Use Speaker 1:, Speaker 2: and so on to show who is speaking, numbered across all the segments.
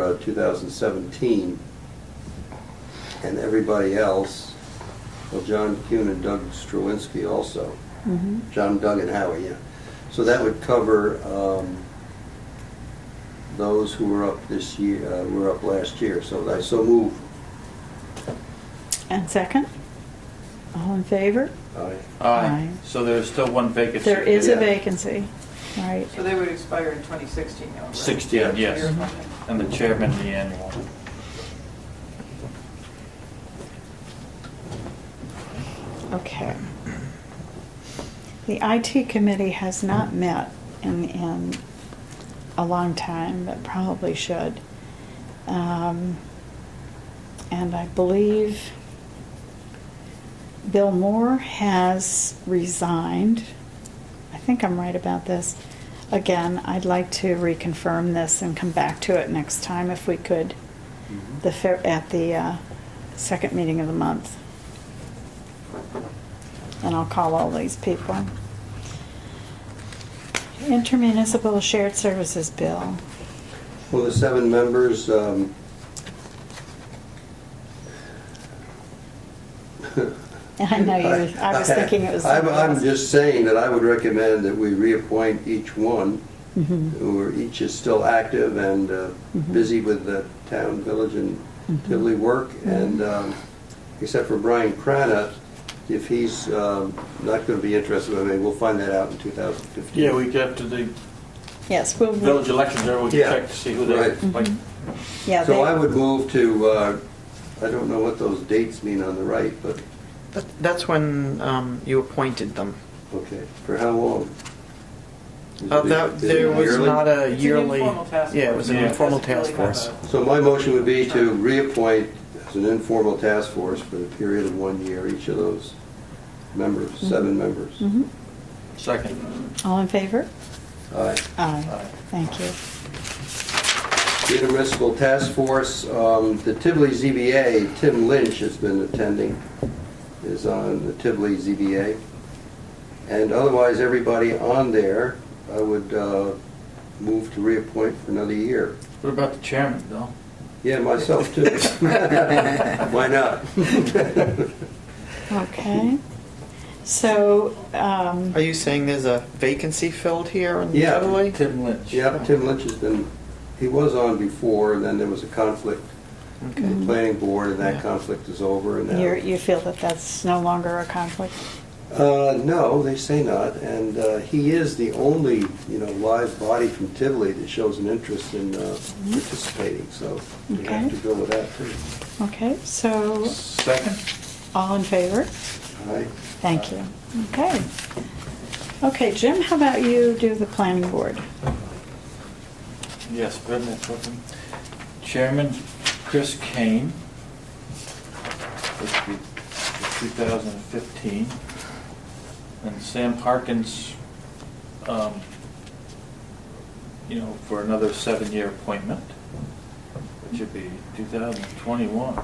Speaker 1: uh, 2017. And everybody else, well, John Kuhn and Doug Struwinski also.
Speaker 2: Mm-hmm.
Speaker 1: John, Doug, and Howie, yeah. So that would cover um, those who were up this year, uh, were up last year. So I so move.
Speaker 2: And second? All in favor?
Speaker 1: Aye.
Speaker 2: Aye.
Speaker 3: Aye. So there's still one vacancy.
Speaker 2: There is a
Speaker 1: Yeah.
Speaker 2: vacancy, right?
Speaker 4: So they would expire in 2016 now, right?
Speaker 3: 16,
Speaker 4: Yeah,
Speaker 3: uh, yes.
Speaker 4: so you're-
Speaker 2: uh-huh.
Speaker 3: And the chairman, the annual.
Speaker 2: Okay. The IT committee has not met in, in a long time, but probably should. Um, And I believe Bill Moore has resigned. I think I'm right about this. Again, I'd like to reconfirm this and come back to it next time if we could, the, fair- at the uh, second meeting of the month and I'll call all these people. Intermunicipal Shared Services Bill.
Speaker 1: Well, the seven members, um,
Speaker 2: I know you, I was thinking it was.
Speaker 1: I'm, I'm just saying that I would recommend that we reappoint each one, who are, each is still active and uh,
Speaker 2: Mm-hmm.
Speaker 1: busy with the town, village, and Tivoli work, and,
Speaker 2: Mm-hmm.
Speaker 1: um, except for Brian Crana, if he's um, not going to be interested, I mean, we'll find that out in 2015.
Speaker 3: Yeah, we get to the
Speaker 2: Yes, we'll,
Speaker 3: village elections, there we can
Speaker 1: Yeah.
Speaker 3: check to see who they,
Speaker 1: Right.
Speaker 3: like,
Speaker 2: Mm-hmm. yeah,
Speaker 1: So I
Speaker 2: they,
Speaker 1: would move to, uh, I don't know what those dates mean on the right, but,
Speaker 5: That- That's when um, you appointed them.
Speaker 1: okay, for how long? Is
Speaker 5: Uh,
Speaker 1: it-
Speaker 5: that,
Speaker 1: is it
Speaker 5: there was
Speaker 1: yearly?
Speaker 5: not a
Speaker 4: It's an
Speaker 5: yearly.
Speaker 4: informal task
Speaker 5: Yeah, it was an
Speaker 3: force.
Speaker 5: informal
Speaker 4: Doesn't really
Speaker 5: task force.
Speaker 4: have
Speaker 1: So my motion would be to reappoint as an informal task force for the period of one year, each of those members, seven members.
Speaker 2: Mhm.
Speaker 3: second.
Speaker 2: all in favor?
Speaker 1: Aye.
Speaker 2: Aye, thank you.
Speaker 1: The Intermunicipal Task Force, um, the Tivoli ZBA, Tim Lynch has been attending, is on the Tivoli ZBA. And otherwise, everybody on there, I would uh, move to reappoint for another year.
Speaker 3: What about the chairman, Bill?
Speaker 1: Yeah, myself too. Why not?
Speaker 2: Okay. So, um,
Speaker 5: Are you saying there's a vacancy filled here in
Speaker 1: Yeah.
Speaker 5: Tivoli?
Speaker 3: Tim Lynch.
Speaker 1: Yeah, Tim Lynch has been, he was on before, and then there was a conflict with the planning board, and that
Speaker 5: Yeah.
Speaker 1: conflict is over, and
Speaker 2: you're,
Speaker 1: now...
Speaker 2: you feel that that's no longer a conflict?
Speaker 1: Uh, no, they say not, and uh, he is the only, you know, live body from Tivoli that shows an interest in uh, participating, so we have
Speaker 2: Okay.
Speaker 1: to go with that, too.
Speaker 2: Okay, so,
Speaker 3: Second?
Speaker 2: all in favor?
Speaker 1: All right?
Speaker 2: Thank you. Okay. Okay, Jim, how about you do the planning board?
Speaker 3: Yes, Brendan Fulton. Chairman Chris Kane, which would be 2015. And Sam Harkins, um, you know, for another seven-year appointment, which would be 2021.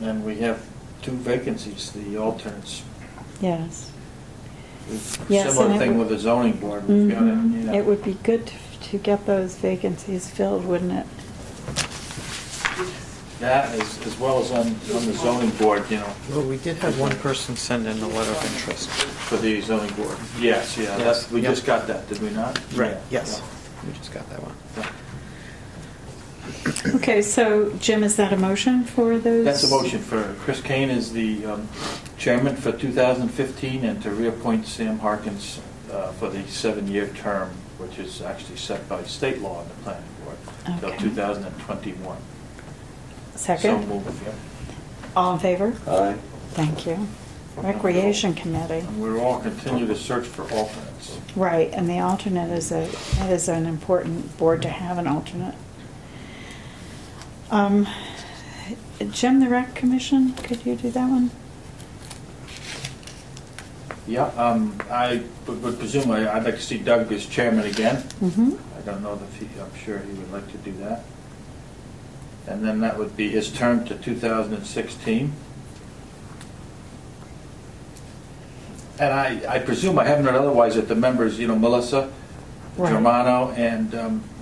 Speaker 3: And we have two vacancies, the alternates.
Speaker 2: Yes. Yes, and
Speaker 3: Similar
Speaker 2: it
Speaker 3: thing
Speaker 2: would-
Speaker 3: with the zoning board. We've got it, you
Speaker 2: Mhm.
Speaker 3: know.
Speaker 2: It would be good to- to get those vacancies filled, wouldn't it?
Speaker 3: That, as, as well as on, on the zoning board, you know,
Speaker 5: Well, we did have one person send in a letter of interest.
Speaker 3: for the zoning board. Yes, yeah, that's, we just got that, did we not? Yeah,
Speaker 5: Yes, we just got that one.
Speaker 3: yeah.
Speaker 2: Okay, so Jim, is that a motion for those?
Speaker 3: That's a motion for, Chris Kane is the um, chairman for 2015, and to reappoint Sam Harkins uh, for the seven-year term, which is actually set by state law in the planning board, till
Speaker 2: Okay.
Speaker 3: 2021. So
Speaker 2: Second?
Speaker 3: moved, yeah.
Speaker 2: All in favor?
Speaker 1: Aye.
Speaker 2: Thank you. Recreation Committee,
Speaker 3: And we'll all continue to search for alternates.
Speaker 2: right, and the alternate is a, that is an important board to have an alternate. Um, Jim, the Rec Commission, could you do that one?
Speaker 3: Yeah, um, I would would presume, I- I'd like to see Doug as chairman again.
Speaker 2: Mm-hmm.
Speaker 3: I don't know if he, I'm sure he would like to do that. And then that would be his term to 2016. And I, I presume I haven't heard otherwise that the members, you know, Melissa
Speaker 2: Right.
Speaker 3: Germano and um,